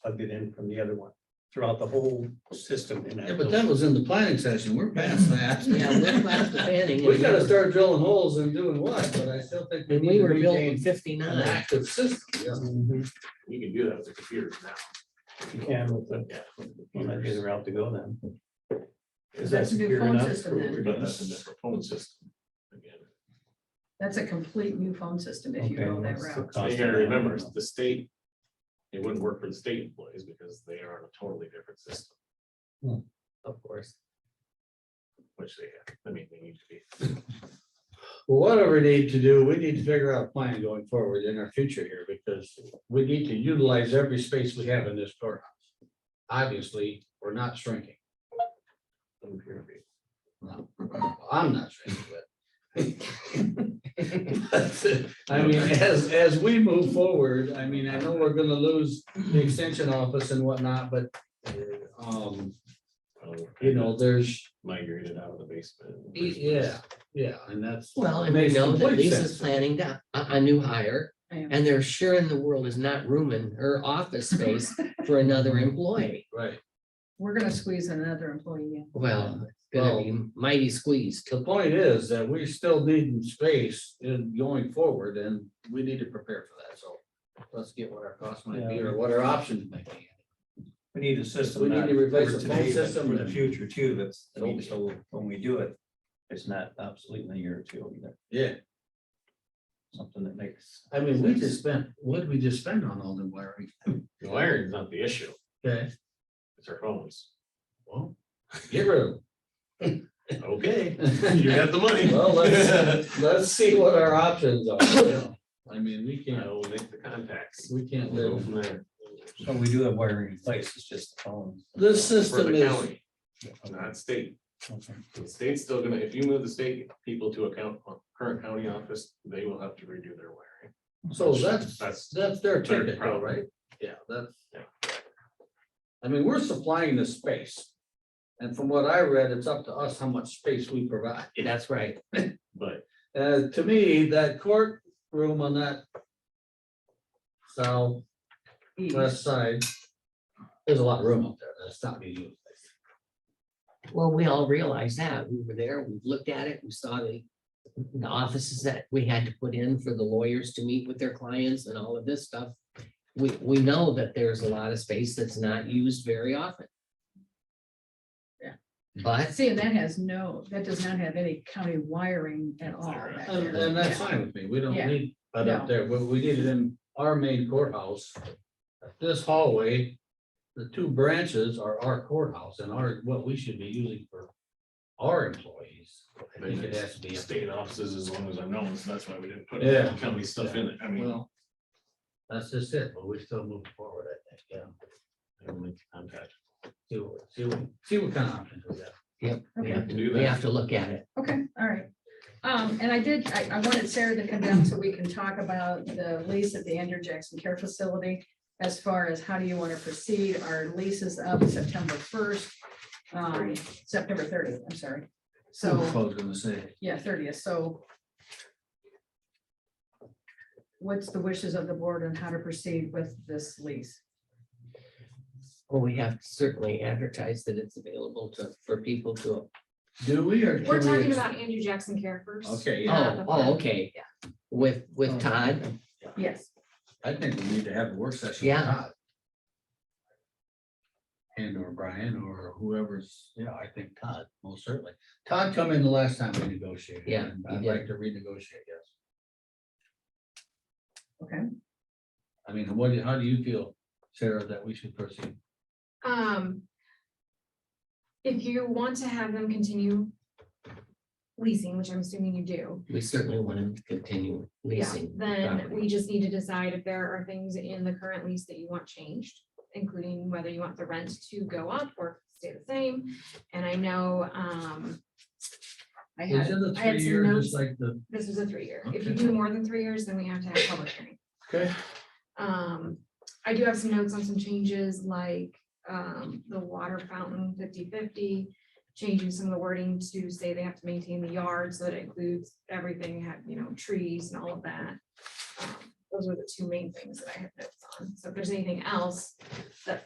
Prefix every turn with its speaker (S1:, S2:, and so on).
S1: plugged it in from the other one throughout the whole system in that.
S2: Yeah, but
S1: building.
S2: that was in the planning session. We're past that.
S3: Mm-hmm. Yeah, we're past the panning.
S2: We gotta start drilling holes and doing what, but I still think we
S3: When
S2: need
S3: we
S2: to
S3: were built in
S2: regain an
S3: fifty-nine,
S2: active system. yeah.
S1: Mhm.
S4: You can do that with the computers now.
S1: You can with the, well, that'd be the route to go then. Is that
S5: That's a new
S1: secure
S5: phone
S1: enough?
S5: system then.
S4: But that's a different phone system. Again,
S5: That's a complete new phone system if you
S1: Okay,
S5: go that
S1: what's the
S5: route.
S4: So
S1: cost
S4: You
S1: of
S4: gotta
S1: that?
S4: remember, it's the state, it wouldn't work for the state employees because they are on a totally different system,
S2: Hmm.
S3: of course.
S4: which they, have. I mean, they need to be.
S2: Well, Whatever we need to do, we need to figure out a plan going forward in our future here because we need to utilize every space we have in this courthouse. Obviously, we're not shrinking. No, I'm not shrinking, but. I mean, as, as we move forward, I mean, I know we're gonna lose the extension office and whatnot, but uh, um,
S4: um,
S2: you know, there's,
S4: Migrated out of the basement.
S2: yeah, yeah, and that's.
S3: Well, and we
S2: Makes
S3: know that
S2: complete
S3: Lisa's
S2: sense.
S3: planning to- a, a new hire,
S5: Yeah.
S3: and there sure in the world is not room in her office space for another employee.
S2: Right.
S5: We're gonna squeeze another employee in.
S3: Well, it's gonna be mighty squeezed.
S2: The point is that we still need space in going forward and we need to prepare for that, so. Let's get what our costs might be or what our options might be.
S1: We need a system.
S2: We need
S1: not
S2: to replace
S1: for
S2: the phone
S1: today, but
S2: system
S1: For the
S2: and-
S1: future too, that's, I mean,
S2: Okay.
S1: so when we do it, it's not obsolete in a year or two either,
S2: Yeah,
S1: something that makes.
S2: I mean, we just spent, what did we just spend on all the wiring?
S4: The wiring's not the issue,
S2: Okay,
S4: it's our phones.
S2: well, get rid of
S4: Okay,
S2: them.
S4: you got the money.
S2: Well, let's, let's see what our options are. you know. I mean, we
S4: I
S2: can't,
S4: will make the contacts.
S2: we can't
S4: We'll go
S2: live.
S4: from there.
S1: So we do have wiring in place, it's just the phones.
S2: This
S4: For
S2: system
S4: the
S2: is,
S4: county, not state.
S1: Okay.
S4: The state's still gonna, if you move the state people to account, uh, current county office, they will have to redo their wiring.
S2: so that's,
S4: That's,
S2: that's their
S4: Their
S2: ticket, though,
S4: problem.
S2: right? Yeah, that's. I mean, we're supplying the space. And from what I read, it's up to us how much space we provide.
S3: That's right.
S4: but
S2: Uh, to me, that courtroom on that southwest side, there's a lot of room up there. That's not being used.
S3: Well, we all realize that. We were there, we looked at it, we saw the, the offices that we had to put in for the lawyers to meet with their clients and all of this stuff. We, we know that there's a lot of space that's not used very often.
S5: Yeah.
S3: But,
S5: See, and that has no, that does not have any county wiring at all back
S2: And,
S5: there.
S2: and Oh, that's
S5: Yeah.
S2: fine with me. We don't
S5: Yeah.
S2: need that up
S5: No.
S2: there. What we need is in our main courthouse. This hallway, the two branches are our courthouse and our, what we should be using for our employees. I think it has to be. up
S4: state offices as long as I know, so that's why we didn't put
S2: Yeah.
S4: county stuff in it. I
S2: there.
S4: mean.
S2: Well, that's just it, but we still move forward, I think, yeah.
S4: I don't make contact.
S2: See what, see what, see what kind of options we got.
S3: we
S5: Okay,
S3: have
S4: Do
S3: to,
S4: that.
S3: we have to look at it.
S5: okay, all right. Um, and I did, I, I wanted Sarah to come down so we can talk about the lease at the Andrew Jackson Care Facility. As far as how do you want to proceed, our lease is up September first, um, September thirtieth, I'm sorry.
S2: That's what
S5: So,
S2: I was gonna say.
S5: yeah, thirtieth, so. What's the wishes of the board on how to proceed with this lease?
S3: Well, we have to certainly advertise that it's available to, for people to,
S2: Do we or?
S6: We're
S2: can we
S6: talking
S2: ex-
S6: about Andrew Jackson Care first.
S2: Okay, yeah,
S3: oh, oh, okay. With, with Todd,
S5: Yes,
S2: I think we need to have a work session. with
S3: Yeah.
S2: Todd. And or Brian or whoever's, yeah, I think Todd, most certainly. Todd come in the last time we negotiated.
S3: Yeah,
S2: and
S3: he
S2: I'd
S3: did.
S2: like to renegotiate, yes.
S5: Okay.
S2: I mean, what, do you- how do you feel, Sarah, that we should proceed?
S6: Um. If you want to have them continue leasing, which I'm assuming you do,
S3: we certainly want him to continue
S6: yeah,
S3: leasing. the
S6: then
S3: property.
S6: we just need to decide if there are things in the current lease that you want changed, including whether you want the rent to go up or stay the same. And I know, um,
S5: I
S2: Is it a
S5: had,
S6: I had some
S2: three-year, just
S6: notes.
S2: like the?
S6: this is a three-year. If you
S2: Okay.
S6: do more than three years, then we have to have a public hearing.
S2: Okay.
S6: Um, I do have some notes on some changes like, um, the water fountain 50/50, Changing some of the wording to say they have to maintain the yard, so that includes everything, have, you know, trees and all of that. Um, Those are the two main things that I have notes on. on. So if there's anything else